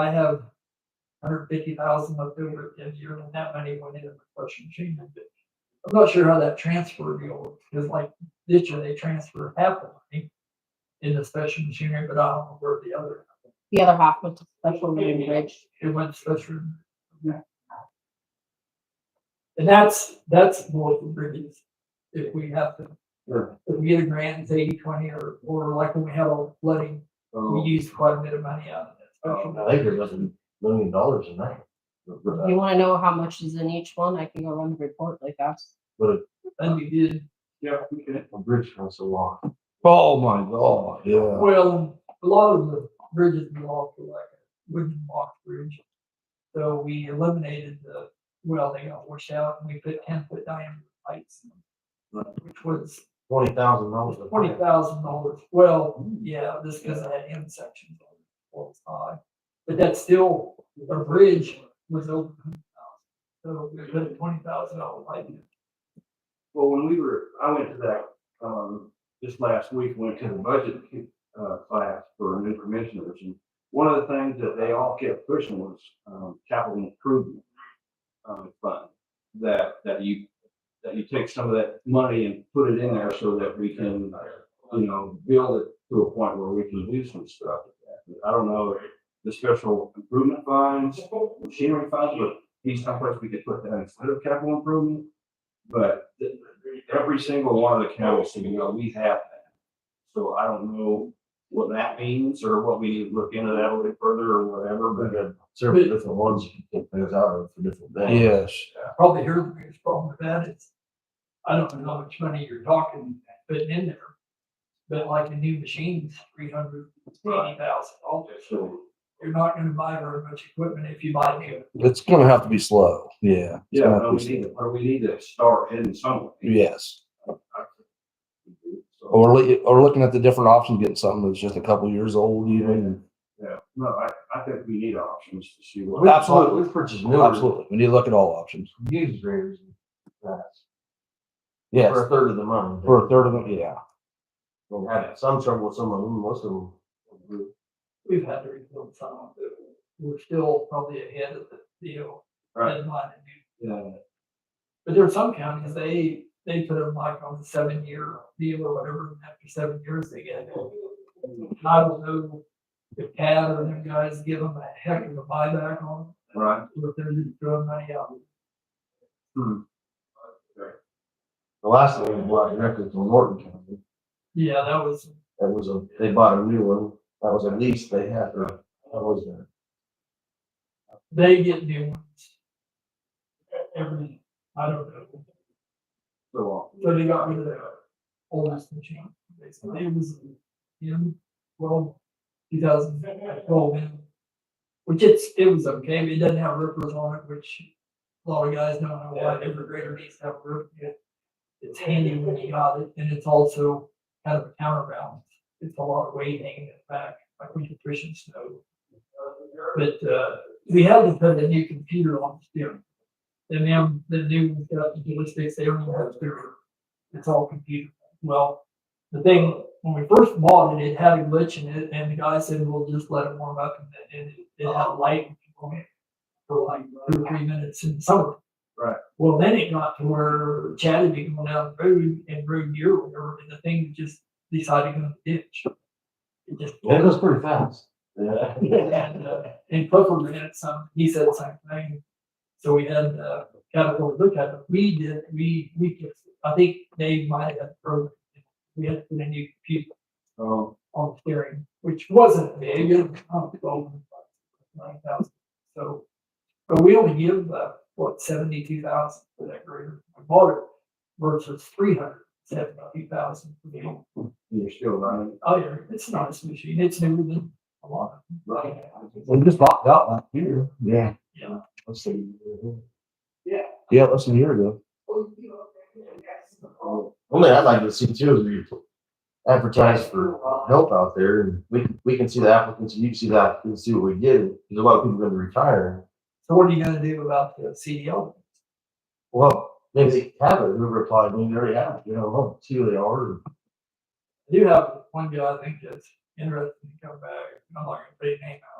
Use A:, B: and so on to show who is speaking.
A: I have hundred fifty thousand left over at the end of the year, and that money went into the flush machine. I'm not sure how that transfer deal works, because like this year, they transfer half the money in the special machinery, but I don't know where the other,
B: The other half went to special road bridge.
A: it went special. And that's, that's more for bridges, if we have to,
C: Sure.
A: if we get a grant, it's eighty, twenty, or, or like when we had all the flooding, we
C: Oh,
A: used quite a bit of money out of that special.
C: I think there was a million dollars in that.
B: If you wanna know how much is in each one, I can go run the report like that.
A: And we did,
D: Yeah, we can.
C: A bridge costs a lot.
D: Oh, my God.
C: Yeah.
A: Well, a lot of the bridges belong to like a wooden box bridge. So we eliminated the, well, they got washed out and we put ten foot diameter pipes. in them, Which was
C: Twenty thousand dollars.
A: twenty thousand dollars. Well, yeah, just because it had end sections on it, well, it's high. But that's still, the bridge was over hundred thousand. So we put a twenty thousand dollar pipe in.
D: Well, when we were, I went to that, um, this last week, went to the budget, uh, class for new commissioners. And one of the things that they all kept pushing was, um, capital improvement, um, fund. That, that you, that you take some of that money and put it in there so that we can, you know, build it to a point where we can do some stuff. with that. But I don't know, if the special improvement funds, machinery funds, but these someplace we could put that instead of capital improvement. But th- every single one of the counties, you know, we have that. So I don't know what that means or what we need to look into that a little further or whatever,
C: We
D: but.
C: got several different ones you can take things out of for different things.
D: Yes.
A: probably here the biggest problem with that is, I don't know how much money you're talking, putting in there. But like a new machine's three hundred eighty thousand dollars,
D: So,
A: you're not gonna buy very much equipment if you buy new.
E: It's gonna have to be slow. Yeah. It's
D: yeah,
E: gonna have
D: no,
E: to
D: we
E: be
D: need,
E: slow.
D: to- or we need to start heading somewhere.
E: Yes.
D: So,
E: Or, li- or looking at the different options, getting something that's just a couple years old even.
D: yeah, no, I, I think we need options to see what.
C: We-
E: Absolutely.
C: We purchased new.
E: Absolutely. We need to look at all options.
C: Used graders. and that's
E: Yes.
C: For a third of the money.
E: For a third of them, yeah.
C: We Had some trouble with some of them, most of them.
A: We've had to rebuild some of it. We're still probably ahead of the deal
D: Right.
A: deadline.
D: Yeah.
A: But there are some counties, they, they put them like on the seven year deal or whatever, and after seven years, they get it. And I don't know if Cat or them guys give them a heck of a buyback on them.
D: Right.
A: If they're just throwing money out.
C: The last thing we bought directly from Norton County,
A: Yeah, that was,
C: that was a, they bought a new one. That was a lease they had, or that was there.
A: they get new ones. Every, I don't know,
D: So uh, often.
A: so they got rid of the oldest machine, basically, it was in, well, two thousand twelve. Which it's, it was okay, but it doesn't have rippers on it, which a lot of guys don't know why every grader needs to have a roof. It's handy when you got it, and it's also kind of a counterbalance, it's a lot of weight hanging it back, like when you're pushing snow. But uh, we had to put a new computer on the steering. And then the new uh, ballistics, they don't even have steering. It's all computer. Well, the thing, when we first bought it, it had a glitch in it, and the guy said, we'll just let it warm up and it, it had light on it for like two or three minutes in the summer.
D: Right.
A: Well, then it got to where Chad had been going down the road and road gear or whatever, and the thing just decided to go in the ditch. It just
C: It was pretty fast. Yeah.
A: and, uh, and Clifford ran some, he said the same thing. So we had, uh, Caterpillar look at it, we did, we, we, fixed it. I think they might have, broken it. we had to put a new computer
D: So,
A: on the steering, which wasn't big, it was about 12, nine thousand, so. But we only give, uh, what, seventy-two thousand for that grader, I bought it versus three hundred seventy-two thousand for the, old-
D: you're still running.
A: oh yeah, it's a nice machine, it's newer than a lot of them.
E: We just bought that last year. Yeah.
A: Yeah.
E: Let's see.
C: Mm-hmm.
E: Yeah, less than a year ago.
C: Only I'd like to see too is we advertise for help out there and we, we can see the applicants, and you can see that, and see what we get. There's a lot of people gonna retire.
A: So what are you gonna do about the E CDL?
C: Well, maybe they have it, whoever applied, maybe they already have, it, you know, well, see who they are.
A: I do have one guy I think that's interested in coming back. I'm not gonna put his name out. uh,